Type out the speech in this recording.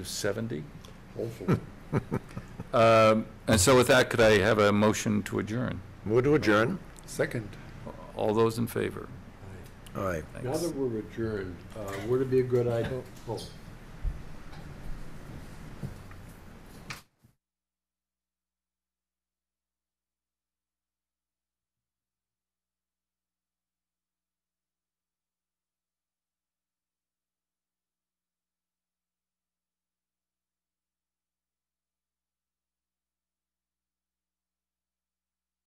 70. Hopefully. Um, And so with that, could I have a motion to adjourn? Move to adjourn. Second. All those in favor? Aye. Now Thanks. that we're adjourned, uh, would it be a good idea, oh,